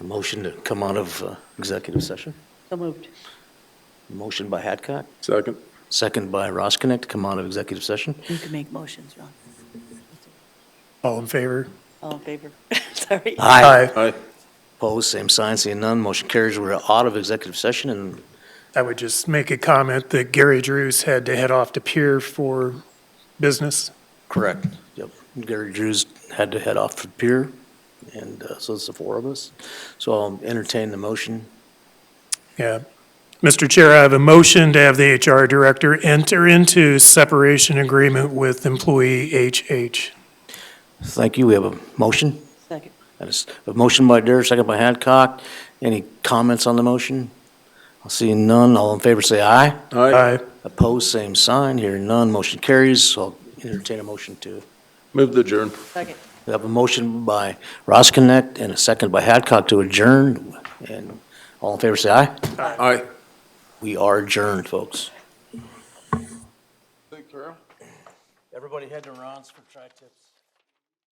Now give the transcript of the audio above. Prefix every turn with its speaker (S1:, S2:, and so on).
S1: motion to come out of uh, executive session?
S2: So moved.
S1: Motion by Hadcock,
S3: Second.
S1: second by Ross Connect to come out of executive session.
S2: You can make motions, Ron.
S4: All in favor?
S2: All in favor? Sorry.
S3: Aye.
S1: Opposed, same sign, seeing none, motion carries. We're out of executive session and
S4: I would just make a comment that Gary Drews had to head off to Pier for business.
S1: Correct. Yep. Gary Drews had to head off for pier, and uh, so it's the four of us. So I'll entertain the motion.
S4: Yeah. Mr. Chair, I have a motion to have the HR director enter into separation agreement with employee HH.
S1: Thank you. We have a motion.
S2: Second.
S1: And it's A motion by Dare, second by Hadcock. Any comments on the motion? I'll see none. All in favor, say aye.
S3: Aye.
S4: Aye.
S1: Opposed, same sign. Hearing none, motion carries. So I'll entertain a motion to,
S3: Move the adjourn.
S2: Second.
S1: we have a motion by Roskinick and a second by Hadcock to adjourn. And all in favor, say aye.
S3: Aye.
S1: We are adjourned, folks.
S3: Thank you, Carol.
S1: Everybody head to Ron's for tri-tips.